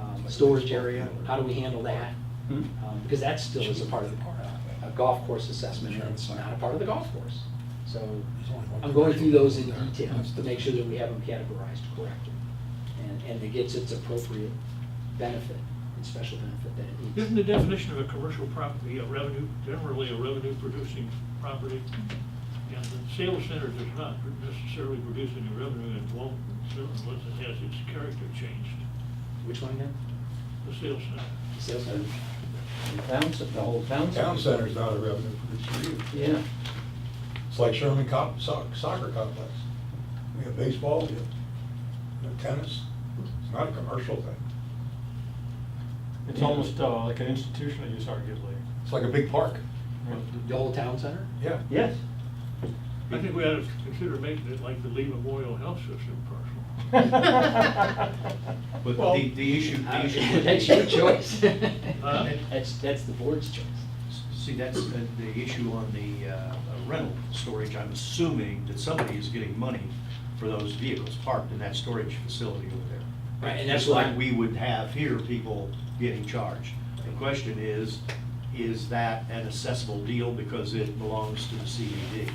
um, storage area, how do we handle that? Hmm? Um, Because that still is a part of the, uh, a golf course assessment, and it's not a part of the golf course. So I'm going through those in detail to make sure that we have them categorized correctly. And, and it gets its appropriate benefit, and special benefit that it needs. Isn't the definition of a commercial property a revenue, generally a revenue producing property? And the sales center does not necessarily produce any revenue and won't unless it has its character changed, Which one again? the sales center. Sales center? Town, cen- the whole town. center. Town center's not a revenue producer either. Yeah. It's like Sherman Cop, so- soccer complex. We have baseball, we have we have tennis. It's not a commercial thing. It's almost uh, like an institutional use arguably. It's like a big park. The whole town center? Yeah. Yes. I think we ought to consider making it like the Lee Memorial Health System parcel. But Well- the, the issue, the issue would be. That's your choice. Huh? That's, that's the board's choice. See, that's uh, the issue on the uh, rental storage. I'm assuming that somebody is getting money for those vehicles parked in that storage facility over there. Right, and that's Just like why- we would have here, people getting charged. The question is, is that an accessible deal because it belongs to the CED?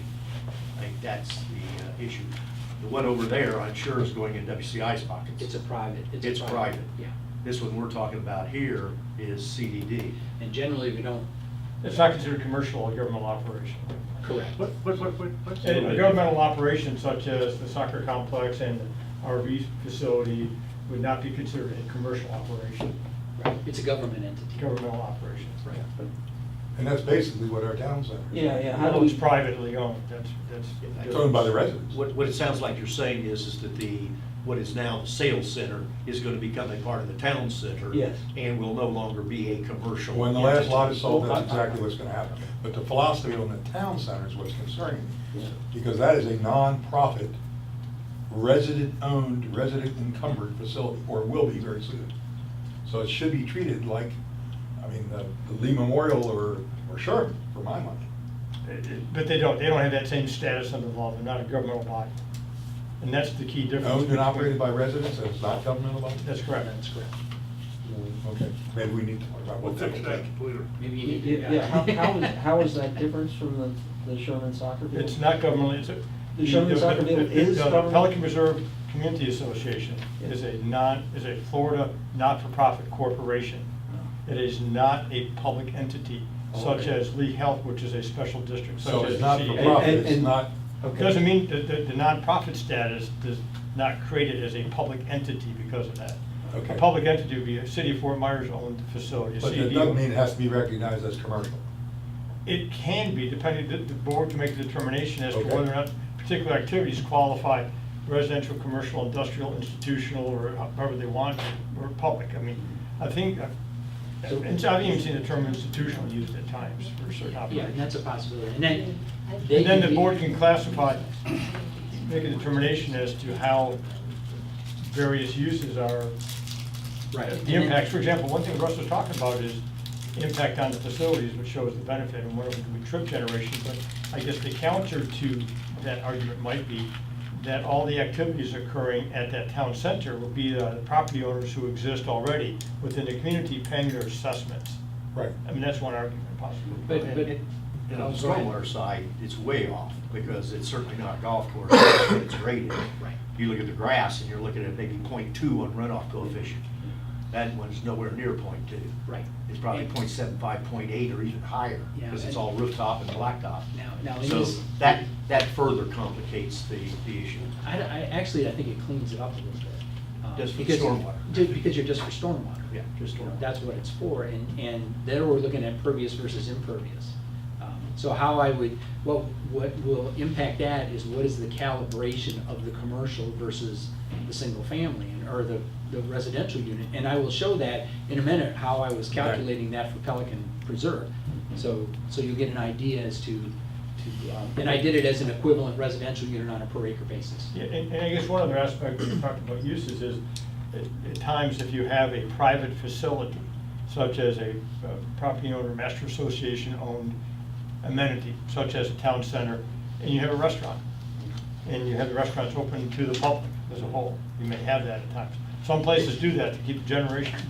I think that's the uh, issue. The one over there, I'm sure is going in WCI's pockets. It's a private. a It's private. Yeah. This one we're talking about here is CDD. And generally, we don't, It's not considered commercial, a governmental operation. correct. What, what, what, what- what's? A the- a governmental operation such as the soccer complex and RV facility would not be considered a commercial operation, Right. It's a government entity. governmental operation. Right. And that's basically what our town center is. Yeah, yeah. How do Although it's we, privately owned, that's, that's. It's owned by the residents. What, what it sounds like you're saying is, is that the, what is now the sales center is gonna become a part of the town center. Yes. And will no longer be a commercial. When the last entity. lot is sold, that's exactly what's gonna happen. But the philosophy on the town center is what's concerning me. Yeah. Because that is a nonprofit, resident-owned, resident-encumbered facility, or will be very soon. So it should be treated like, I mean, the the Lee Memorial or, or Sherman, for my money. But they don't, they don't have that same status under the law, they're not a governmental body. And that's the key difference. Owned and between- operated by residents, and it's not governmental body? That's correct. That's correct. Okay, maybe we need to talk about We'll what that fix would that take. later. Maybe you need to. yeah, how, how is, how is that different from the, the Sherman soccer field? It's not government, it's a. The Sherman Soccer Field the- the- is the government. Pelican Reserve Community Association Yeah. is a non, is a Florida not-for-profit corporation. It is not a public entity such Okay. as Lee Health, which is a special district such Oh, So as. it's the not CEA. for And- profit, and- it's not, Okay. Doesn't mean that the the nonprofit status does not create it as a public entity because of that. Okay. A public entity would be a city of Fort Myers-owned facility. a but that CED. doesn't mean it has to be recognized as commercial. It can be, depending, the the board can make the determination as to Okay. whether or not particular activities qualify residential, commercial, industrial, institutional, or however they want, or public. I mean, I think, I've So- and so I've even seen the term institutional used at times for certain Yeah, and operations. that's a possibility. And then. they And can then the be- board can classify, make a determination as to how various uses are Right. the impacts, for example, one thing Russ was talking about is impact on the facilities, which shows the benefit, and one of them could be trip generation, but I guess the counter to that argument might be that all the activities occurring at that town center will be uh, the property owners who exist already within the community paying their assessments. Right. I mean, that's one argument possibly. But, but. And on the Go ahead. stormwater side, it's way off, because it's certainly not a golf course, it's rated. Right. You look at the grass, and you're looking at maybe .2 on runoff coefficient. That one's nowhere near .2. Right. It's probably .75, 0.8, or even higher, Yeah, because it's and- all rooftop and blacktop. Now, now. in So this- that, that further complicates the, the issue. I, I, actually, I think it cleans it up a little bit. um, Just for because- stormwater. ju- Because you're just for stormwater. Yeah, just You know, stormwater. That's what it's for, and, and there we're looking at pervious versus impervious. Um, So how I would, what, what will impact that is what is the calibration of the commercial versus the single family, and- or the, the residential unit? And I will show that in a minute, how I was calculating that for Pelican Preserve. So, so you'll get an idea as to, to, um, and I did it as an equivalent residential unit on a per acre basis. Yeah, and, and I guess one other aspect when you talked about uses is, at, at times, if you have a private facility, such as a uh, property owner, master association-owned amenity, such as a town center, and you have a restaurant, and you have the restaurants open to the public as a whole, you may have that at times. Some places do that to keep generation,